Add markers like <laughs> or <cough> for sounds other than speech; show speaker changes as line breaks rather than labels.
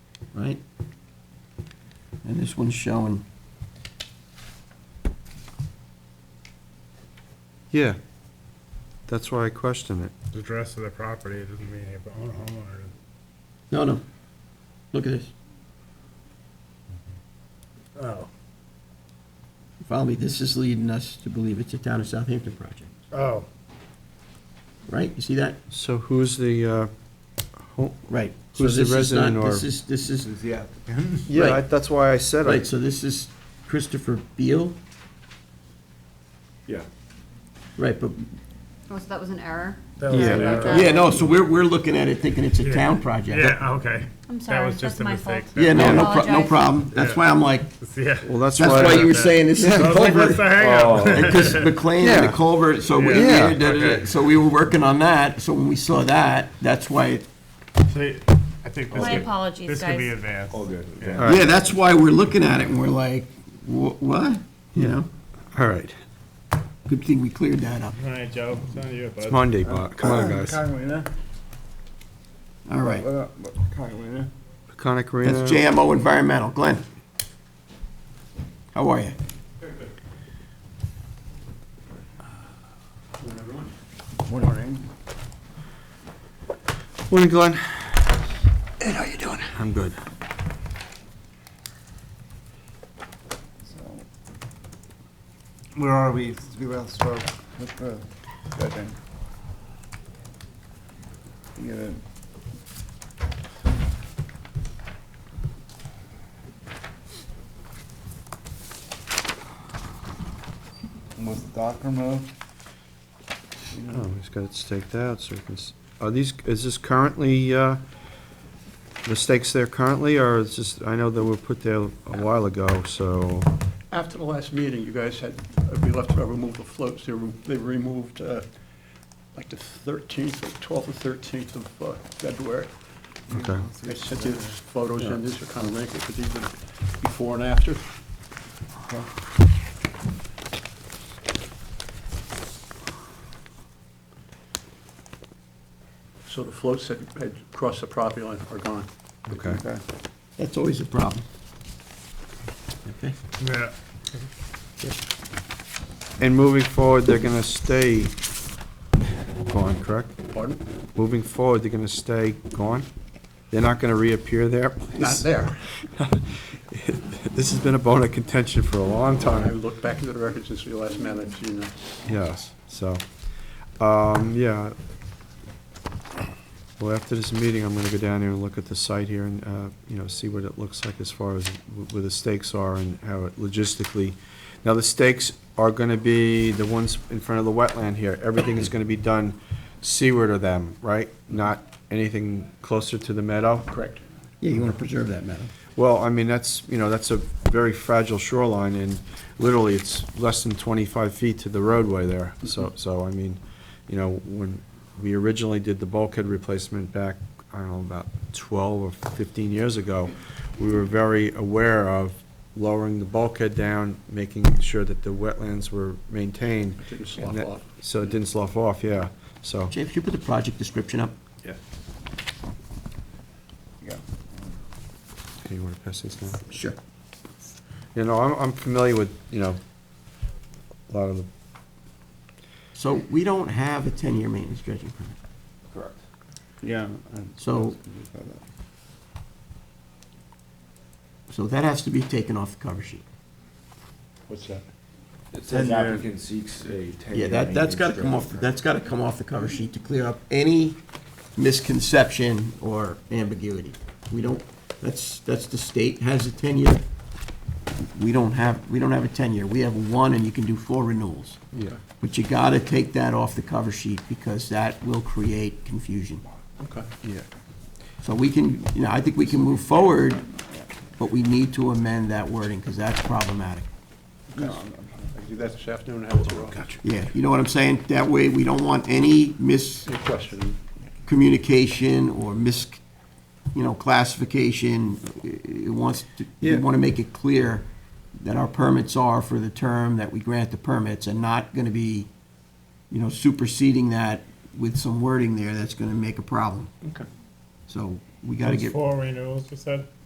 right? And this one's showing,
Yeah, that's why I question it.
The address of the property, it doesn't mean if the owner- homeowner,
no, no, look at this,
oh,
follow me, this is leading us to believe it's a town of Southampton project,
oh,
right? You see that?
So who's the, uh, ho-
Right. So
Who's the
this is
resident
not-
or-
This is, this is,
Is the applicant?
yeah, I-
Right.
that's why I said
right,
it.
so this is Christopher Beal,
Yeah.
right, but,
Oh, so that was an error?
that was
Yeah.
an error.
yeah, no, so we're, we're looking at it thinking it's a town project.
Yeah, okay.
I'm
That
sorry,
was just
that's
a
my
mistake.
fault.
Yeah, no, no, pro- no
Apologize.
problem, that's why I'm like,
Yeah.
Well, that's
that's
why.
why
I-
you were saying this is
I
a
was like, what's <laughs>
culvert.
the hang-up?
Oh.
Because McLean and the
Yeah.
culvert, so we,
Yeah.
yeah, da, da, da.
Okay.
so we were working on that, so when we saw that, that's why,
See, I think this
My
could,
apologies,
this could be
guys.
advanced.
All good.
All right.
yeah, that's why we're looking at it, and we're like, wha- what? You know,
All right,
good thing we cleared that up,
All right, Joe, it's on you,
it's
bud.
Monday, Bob, come on, guys.
Carolina,
all right.
Carolina.
Conic Arena.
That's JMO Environmental, Glenn. How are you?
Morning.
Morning, Glenn. Ed, how you doing? I'm good.
Where are we? We will start with the second. You gotta- Was Docker moved?
Oh, he's got it staked out, so we can, s- are these, is this currently, uh, the stakes there currently, or is this, I know they were put there a while ago, so,
After the last meeting, you guys had, uh, we left to remove the floats, they remo- they removed uh, like the 13th, or 12th or 13th of uh, February.
okay.
I sent you photos in, these are kind of wrinkled, but these are before and after. So the floats that had crossed the property line are gone.
Okay.
That's always a problem. Okay,
Yeah.
And moving forward, they're gonna stay gone, correct?
Pardon?
Moving forward, they're gonna stay gone? They're not gonna reappear there?
Not there.
<laughs> This has been a bone of contention for a long
I
time,
looked back into the records since we last met, I've seen uh, that.
yes, so, um, yeah. Well, after this meeting, I'm gonna go down there and look at the site here and, uh, you know, see what it looks like as far as wh- where the stakes are and how it logistically. Now, the stakes are gonna be the ones in front of the wetland here. Everything is gonna be done seaward of them, right? Not anything closer to the meadow?
Correct.
yeah, you want to preserve that, madam.
Well, I mean, that's, you know, that's a very fragile shoreline, and literally, it's less than 25 feet to the roadway there.
Mm-hmm.
So, so I mean, you know, when we originally did the bulkhead replacement back, I don't know, about 12 or 15 years ago, we were very aware of lowering the bulkhead down, making sure that the wetlands were maintained.
It didn't slough
and that-
off.
So it didn't slough off, yeah, so.
James, could you put the project description up?
Yeah.
Yeah.
Okay, you want to pass these down?
Sure.
You know, I'm, I'm familiar with, you know, a lot of the
So we don't have a 10-year maintenance dredging permit.
Correct. Yeah. and-
So- So that has to be taken off the cover sheet.
What's that?
It says applicant seeks a
Yeah,
ten-year.
that, that's got to come off, that's got to come off the cover sheet to clear up any misconception or ambiguity. We don't, that's, that's the state has a 10-year. We don't have, we don't have a 10-year. We have one, and you can do four renewals.
Yeah.
But you got to take that off the cover sheet because that will create confusion.
Okay.
Yeah.
So we can, you know, I think we can move forward, but we need to amend that wording because that's problematic.
No, I'm- I'm- I can do that this afternoon, have it to Rob.
Yeah, you know what I'm saying? That way, we don't want any mis-
Any question?
communication or mis, you know, classification. It wants to, we
Yeah.
want to make it clear that our permits are for the term that we grant the permits and not going to be, you know, superseding that with some wording there that's going to make a problem.
Okay.
So we got to
It's
get,
Four renewals, you said?